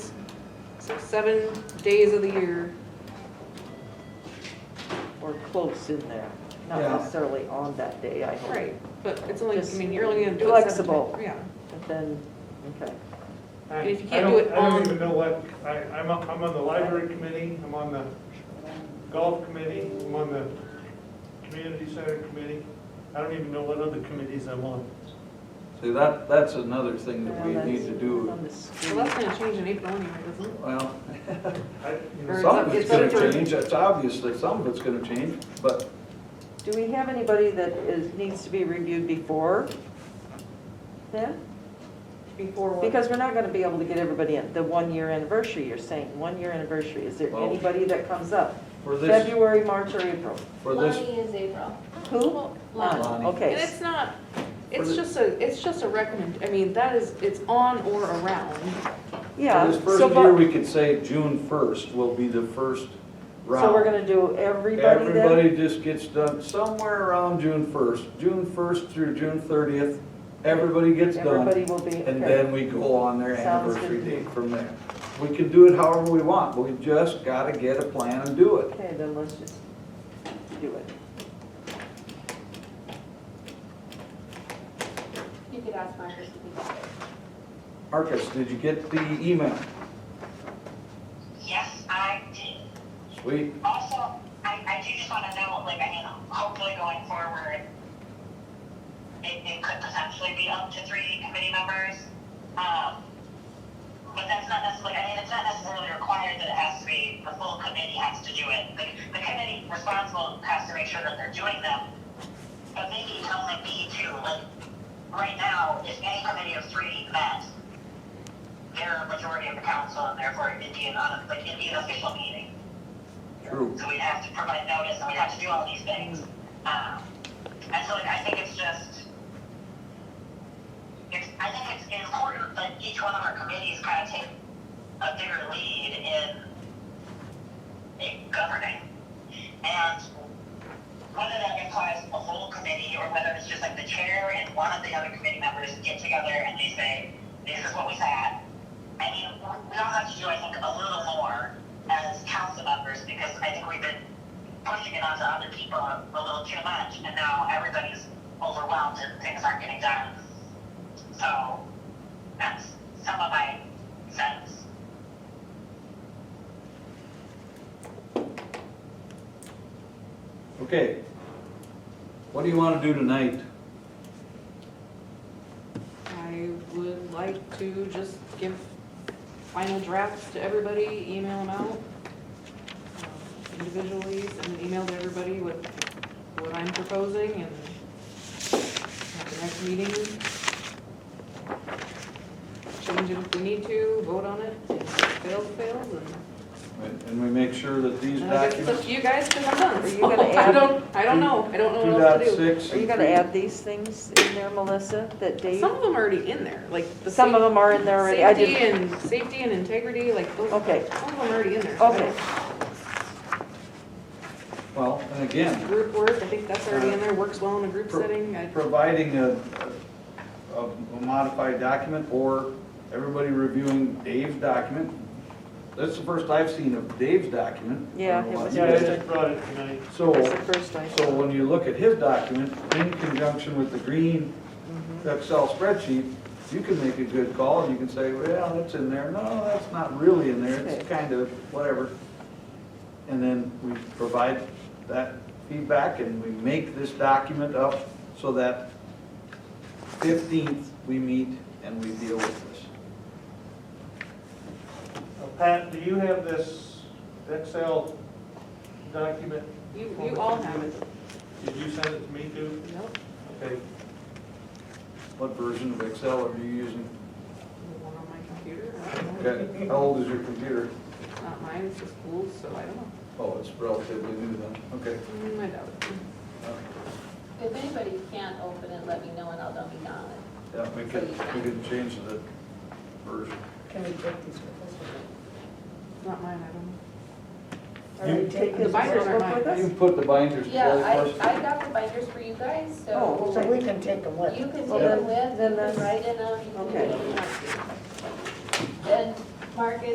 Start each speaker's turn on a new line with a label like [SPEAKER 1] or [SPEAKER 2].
[SPEAKER 1] seven days of the year.
[SPEAKER 2] or close in there, not
[SPEAKER 3] Yeah.
[SPEAKER 2] necessarily on that day, I hope.
[SPEAKER 1] Right. But it's only, I
[SPEAKER 2] Just
[SPEAKER 1] mean, you're only gonna do it seven
[SPEAKER 2] flexible.
[SPEAKER 1] times. Yeah.
[SPEAKER 2] But then, okay,
[SPEAKER 1] And if you
[SPEAKER 4] I-
[SPEAKER 1] can't
[SPEAKER 4] I
[SPEAKER 1] do
[SPEAKER 4] don't-
[SPEAKER 1] it
[SPEAKER 4] I
[SPEAKER 1] on-
[SPEAKER 4] don't even know what, I, I'm, on- I'm on the library committee, I'm on the golf committee, I'm on the community center committee. I don't even know what other committees I'm on.
[SPEAKER 3] See, that, that's another thing that we
[SPEAKER 2] Well,
[SPEAKER 3] need
[SPEAKER 2] that's
[SPEAKER 3] to do,
[SPEAKER 2] on the
[SPEAKER 1] Well,
[SPEAKER 2] street.
[SPEAKER 1] that's gonna change in April anyway, doesn't it?
[SPEAKER 3] well,
[SPEAKER 4] I,
[SPEAKER 1] Or
[SPEAKER 4] you know,
[SPEAKER 1] it's
[SPEAKER 3] some
[SPEAKER 1] up-
[SPEAKER 3] of it's
[SPEAKER 1] it's up
[SPEAKER 3] gonna
[SPEAKER 1] for-
[SPEAKER 3] change, it's obviously, some of it's gonna change, but
[SPEAKER 2] Do we have anybody that is, needs to be reviewed before then?
[SPEAKER 1] Before what?
[SPEAKER 2] Because we're not gonna be able to get everybody in, the one-year anniversary, you're saying, one-year anniversary, is there
[SPEAKER 3] Well-
[SPEAKER 2] anybody that comes up?
[SPEAKER 3] for this,
[SPEAKER 2] February, March, or April?
[SPEAKER 3] for this,
[SPEAKER 5] Lonnie is April.
[SPEAKER 2] Who? Ah,
[SPEAKER 5] Lonnie.
[SPEAKER 3] Lonnie.
[SPEAKER 1] And
[SPEAKER 2] Okay,
[SPEAKER 1] it's not, it's
[SPEAKER 3] the-
[SPEAKER 1] just a, it's just a recommend, I mean, that is, it's on or around.
[SPEAKER 2] yeah.
[SPEAKER 3] for this
[SPEAKER 2] so
[SPEAKER 3] first
[SPEAKER 2] but-
[SPEAKER 3] year, we could say June first will be the first round.
[SPEAKER 2] So we're gonna do everybody then?
[SPEAKER 3] Everybody just gets done somewhere around June first, June first through June thirtieth, everybody gets
[SPEAKER 2] Everybody
[SPEAKER 3] done.
[SPEAKER 2] will be,
[SPEAKER 3] And
[SPEAKER 2] okay.
[SPEAKER 3] then we go on their
[SPEAKER 2] Sounds good.
[SPEAKER 3] anniversary date from there. We can do it however we want, but we just gotta get a plan and do it.
[SPEAKER 2] Okay, then let's just do it.
[SPEAKER 5] You could ask Marcus if he got it.
[SPEAKER 3] Marcus, did you get the email?
[SPEAKER 6] Yes, I did.
[SPEAKER 3] Sweet.
[SPEAKER 6] Also, I, I do just want to know, like, I mean, hopefully going forward, it, it could potentially be up to three committee members. Um, but that's not necessarily, I mean, it's not necessarily required that it has to be, the full committee has to do it. Like, the committee responsible has to make sure that they're doing them. But maybe tell them B too, like, right now, if any committee of three met, they're a majority of the council and therefore it'd be an, un- like, it'd be an official meeting.
[SPEAKER 3] True.
[SPEAKER 6] So we'd have to provide notice, and we'd have to do all these things. Um, and so like, I think it's just, it's, I think it's important that each one of our committees kind of take a bigger lead in, in governing. And whether that implies a whole committee, or whether it's just like the chair and one of the other committee members get together and they say, this is what we had, I mean, we all have to do, I think, a little more as council members, because I think we've been pushing it onto other people a little too much, and now everybody's overwhelmed and things aren't getting done. So, that's some of my sense.
[SPEAKER 3] Okay. What do you wanna do tonight?
[SPEAKER 1] I would like to just give final drafts to everybody, email them out um, individually, send an email to everybody with what I'm proposing and at the next meeting, change it if we need to, vote on it, if it fails, fails, and
[SPEAKER 3] And we make sure that these
[SPEAKER 1] and I guess it's up
[SPEAKER 3] documents.
[SPEAKER 1] to you guys, because I'm done.
[SPEAKER 2] Are you gonna
[SPEAKER 1] So, I
[SPEAKER 2] add-
[SPEAKER 1] don't, I don't know, I don't know
[SPEAKER 3] Two
[SPEAKER 1] what else
[SPEAKER 3] dot
[SPEAKER 1] to do.
[SPEAKER 3] six.
[SPEAKER 2] Are you gonna add these things in there, Melissa, that Dave,
[SPEAKER 1] Some of them are already in there, like the.
[SPEAKER 2] some of
[SPEAKER 1] safe-
[SPEAKER 2] them are in there already? I
[SPEAKER 1] Safety
[SPEAKER 2] didn't.
[SPEAKER 1] and, safety and integrity, like those, some of
[SPEAKER 2] Okay,
[SPEAKER 1] them are already in there. so
[SPEAKER 2] okay,
[SPEAKER 3] Well, and again,
[SPEAKER 1] Group work, I think that's already in there, works well in a group
[SPEAKER 3] Pro-
[SPEAKER 1] setting. I-
[SPEAKER 3] providing a, a- a modified document or everybody reviewing Dave's document. That's the first I've seen of Dave's document.
[SPEAKER 2] Yeah, it was
[SPEAKER 4] yeah, I just brought it tonight.
[SPEAKER 3] So,
[SPEAKER 2] that's the first I,
[SPEAKER 3] so when you look at his document in conjunction with the green Excel spreadsheet, you can make a good call and you can say, well, that's in there. No, that's not really in there. It's
[SPEAKER 2] Okay.
[SPEAKER 3] kind of whatever. And then we provide that feedback and we make this document up so that fifteenth we meet and we deal with this.
[SPEAKER 4] Now, Uh, Pat, do you have this Excel document?
[SPEAKER 1] You, you all have it.
[SPEAKER 4] Did you send it to me too?
[SPEAKER 1] Nope.
[SPEAKER 4] Okay,
[SPEAKER 3] What version of Excel are you using?
[SPEAKER 1] The one on my computer, I don't know.
[SPEAKER 3] Okay, how old is your computer?
[SPEAKER 1] It's not mine, it's the school's, so I don't know.
[SPEAKER 3] Oh, it's relatively new then. Okay.
[SPEAKER 1] Mm, I doubt it.
[SPEAKER 5] If anybody can't open it, let me know and I'll dump it on it.
[SPEAKER 3] Yeah, we could, we could change the version.
[SPEAKER 7] Can we take these with
[SPEAKER 1] It's not mine, I don't know.
[SPEAKER 7] us? Are we
[SPEAKER 1] The
[SPEAKER 7] taking
[SPEAKER 1] binders are
[SPEAKER 2] with
[SPEAKER 1] mine.
[SPEAKER 2] us?
[SPEAKER 3] You put the binders
[SPEAKER 5] Yeah,
[SPEAKER 3] together first.
[SPEAKER 5] I, I got the binders for you guys, so
[SPEAKER 2] Oh,
[SPEAKER 7] So we can take them with
[SPEAKER 5] you can
[SPEAKER 7] us.
[SPEAKER 5] take
[SPEAKER 2] Well,
[SPEAKER 5] them
[SPEAKER 2] then-
[SPEAKER 5] with,
[SPEAKER 2] then
[SPEAKER 5] you can
[SPEAKER 2] that's-
[SPEAKER 5] write in them, you can do
[SPEAKER 2] okay.
[SPEAKER 5] what you want to. And Marcus,